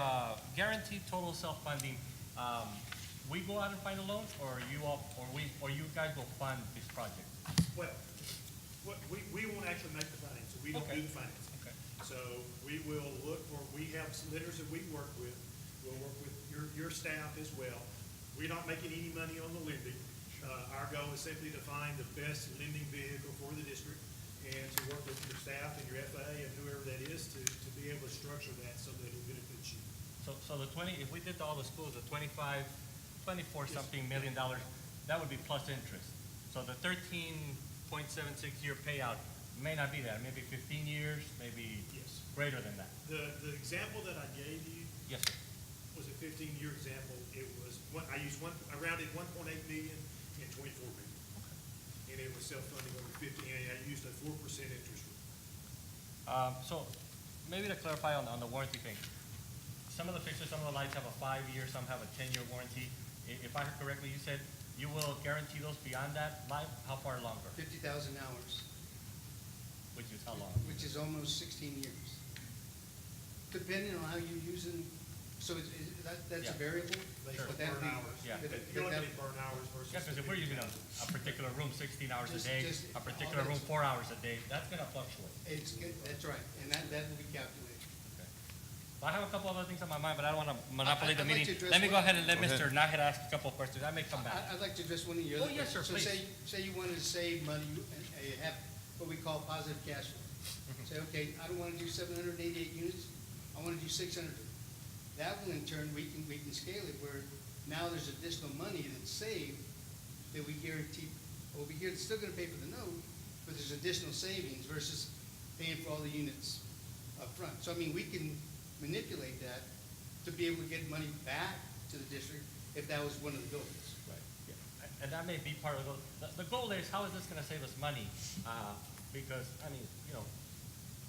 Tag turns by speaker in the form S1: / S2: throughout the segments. S1: uh, guaranteed total self-funding, um, we go out and find the loans, or you all, or we, or you guys will fund this project?
S2: Well, what- we, we won't actually make the financing, we don't do
S1: Okay.
S2: the financing.
S1: Okay.
S2: So we will look for, we have some lenders that we work with, we'll work with your, your staff as well. We're not making any money on the lending. Uh, our goal is simply to find the best lending vehicle for the district and to work with your staff and your FAA and whoever that is to, to be able to structure that so that it benefits you.
S1: So, so the twenty, if we did all the schools, the twenty-five, twenty-four
S2: Yes.
S1: something million dollars, that would be plus interest. So the thirteen point seven six year payout may not be that, maybe fifteen years, maybe
S2: Yes.
S1: greater than that.
S2: The, the example that I gave you
S1: Yes, sir.
S2: was a fifteen-year example. It was, one- I used one, I rounded one point eight million and twenty-four million. And it was self-funding over fifty, and I used a four percent interest rate.
S1: Um, so, maybe to clarify on, on the warranty thing, some of the fixtures, some of the lights have a five-year, some have a ten-year warranty. I- if I heard correctly, you said you will guarantee those beyond that life, how far longer,
S3: fifty thousand hours,
S1: which is how long?
S3: which is almost sixteen years. Depending on how you use it, so it's, it- that, that's
S1: Yeah.
S3: a variable,
S2: They
S1: Sure.
S3: but
S2: burn
S3: that'd be.
S2: hours.
S1: Yeah.
S3: but- but
S2: You're looking
S3: that-
S2: at burn hours versus.
S1: Yeah, because if we're using a, a particular room sixteen hours a
S3: Just-
S1: day,
S3: just
S1: a
S3: all
S1: particular
S3: that-
S1: room four hours a day, that's gonna fluctuate.
S3: It's, good- that's right, and that, that will be calculated.
S1: I have a couple other things on my mind, but I don't wanna monopolize the
S3: I'd like
S1: meeting.
S3: to address
S1: Let me go
S3: one-
S1: ahead and let
S4: Go ahead.
S1: Mr. Nahid ask a couple of questions, I may come back.
S3: I, I'd like to address one of your other
S1: Oh, yes,
S3: questions.
S1: sir,
S3: So say, say you wanted to save money, you, and and you have what we call positive cash flow. Say, okay, I don't wanna do seven hundred and eighty-eight units, I wanna do six hundred. That will in turn, we can, we can scale it where now there's additional money that's saved that we guarantee, over here, it's still gonna pay for the note, but there's additional savings versus paying for all the units upfront. So I mean, we can manipulate that to be able to get money back to the district if that was one of the goals.
S1: Yeah. And that may be part of the, the- the goal is, how is this gonna save us money? Uh, because, I mean, you know,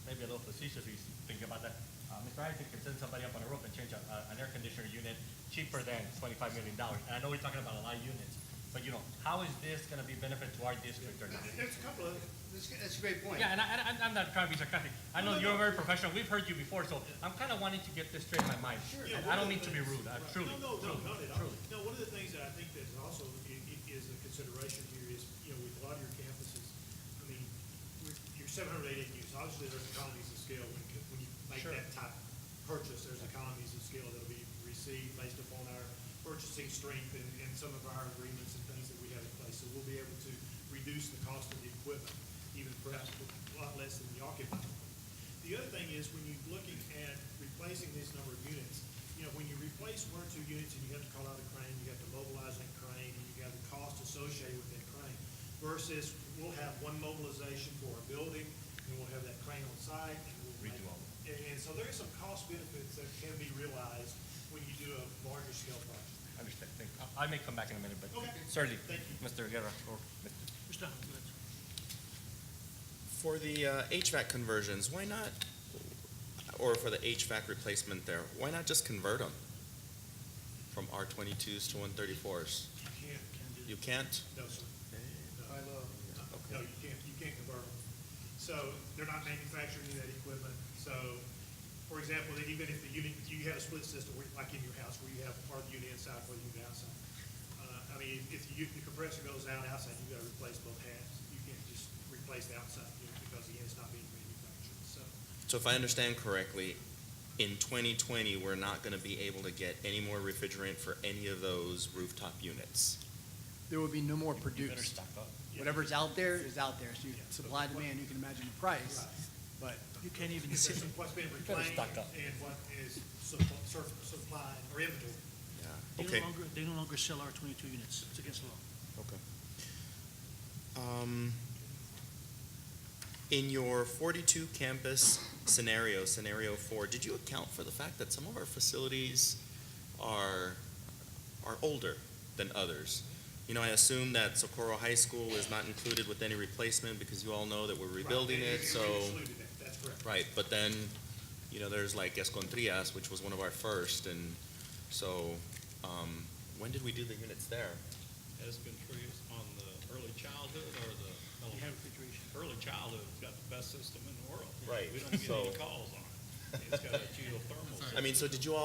S1: maybe a little facetious, we think about that. Uh, Mr. Isaac could send somebody up on a roof and change a, a- an air conditioner unit cheaper than twenty-five million dollars. And I know we're talking about a lot of units, but you know, how is this gonna be benefit to our district or not?
S2: There's a couple of,
S3: That's, that's a great point.
S1: Yeah, and I, and I- I'm not trying to be sarcastic. I know
S2: No, no,
S1: you're
S2: no.
S1: very professional. We've heard you before, so I'm kind of wanting to get this straight in my mind.
S2: Yeah,
S1: And
S2: one
S1: I don't
S2: of the
S1: mean to be
S2: things-
S1: rude, uh,
S2: right.
S1: truly,
S2: No, no, no,
S1: truly,
S2: not at all.
S1: truly.
S2: No, one of the things that I think that is also, i- i- is a consideration here is, you know, with a lot of your campuses, I mean, we're- you're seven hundred eighty units, obviously there's economies of scale when, you- when you make
S1: Sure.
S2: that type of purchase, there's economies of scale that'll be received based upon our purchasing strength and, and some of our agreements and things that we have in place, so we'll be able to reduce the cost of the equipment, even perhaps a lot less than y'all can buy. The other thing is, when you're looking at replacing this number of units, you know, when you replace one or two units and you have to call out a crane, you have to mobilize that crane, and you have the cost associated with that crane, versus we'll have one mobilization for a building, and we'll have that crane on site, and we'll make-
S1: Redo all
S2: And, and so there are some cost benefits that can be realized when you do a larger scale project.
S1: I understand. Thank you. I I may come back in a minute, but
S2: Okay.
S1: certainly,
S2: Thank you.
S1: Mr. Guerra or Mr.
S4: For the uh, HVAC conversions, why not, or for the HVAC replacement there, why not just convert them from R twenty-twos to one thirty-fours?
S2: You can't,
S4: You can't?
S2: no, sir. No.
S3: I love,
S2: No, you can't, you can't convert them. So they're not manufacturing that equipment. So, for example, that even if the unit, you have a split system, where- like in your house, where you have part of the unit inside, part of the unit outside. Uh, I mean, if the, u- the compressor goes out outside, you gotta replace both halves. You can't just replace the outside unit because the unit's not being manufactured, so.
S4: So if I understand correctly, in twenty twenty, we're not gonna be able to get any more refrigerant for any of those rooftop units.
S5: there will be no more
S1: You better
S5: produced.
S1: stock up.
S5: Whatever's out there is out there. So you
S2: Yeah.
S5: supply, demand, you can imagine the price, but
S2: You can't even see. What's been
S1: better
S2: reclaimed
S1: stock up.
S2: and what is suppl- sur- supplied or inventory.
S4: Yeah.
S6: They
S4: Okay,
S6: no longer, they no longer sell our twenty-two units, it's against the law.
S4: okay. Um, in your forty-two campus scenario, scenario four, did you account for the fact that some of our facilities are, are older than others? You know, I assume that Socorro High School is not included with any replacement because you all know that we're rebuilding
S2: Right, and
S4: it,
S2: you-
S4: so.
S2: you excluded that, That's correct.
S4: Right, but then, you know, there's like Escondrias, which was one of our first, and so, um, when did we do the units there?
S7: has been treated on the early childhood or the.
S6: You have refrigeration.
S7: Early childhood's got the best system in the world.
S4: Right,
S7: We don't get
S4: so-
S7: any calls on it. It's got a geothermal.
S4: I mean, so did you all